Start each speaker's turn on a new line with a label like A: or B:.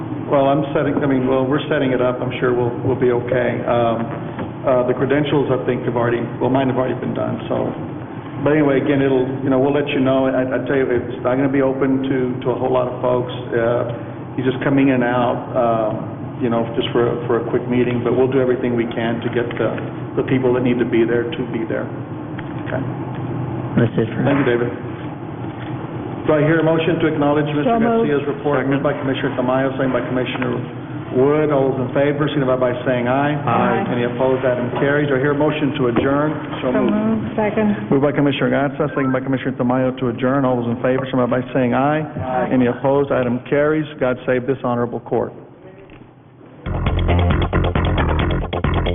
A: Well, I'm setting, I mean, well, we're setting it up, I'm sure we'll, we'll be okay. Um, uh, The credentials, I think, have already, well, mine have already been done, so. But anyway, again, it'll, you know, we'll let you know, I, I tell you, it's not gonna be open to, to a whole lot of folks. Uh, He's just coming in and out, um, you know, just for, a- for a quick meeting, but we'll do everything we can to get the, the people that need to be there to be there. Okay.
B: That's it for...
A: Thank you, David. Do I hear a motion to acknowledge Mr.
B: So moved.
A: Garcia's report? Moved by Commissioner Tamayo, second by Commissioner Wood. All those in favor, signify by saying aye.
B: Aye.
A: Any opposed, item carries. Do I hear a motion to adjourn? So
C: Second.
A: Moved by Commissioner Gatsa, second by Commissioner Tamayo to adjourn. All those in favor, signify by saying aye. Aye. Any opposed, item carries. God save this honorable court.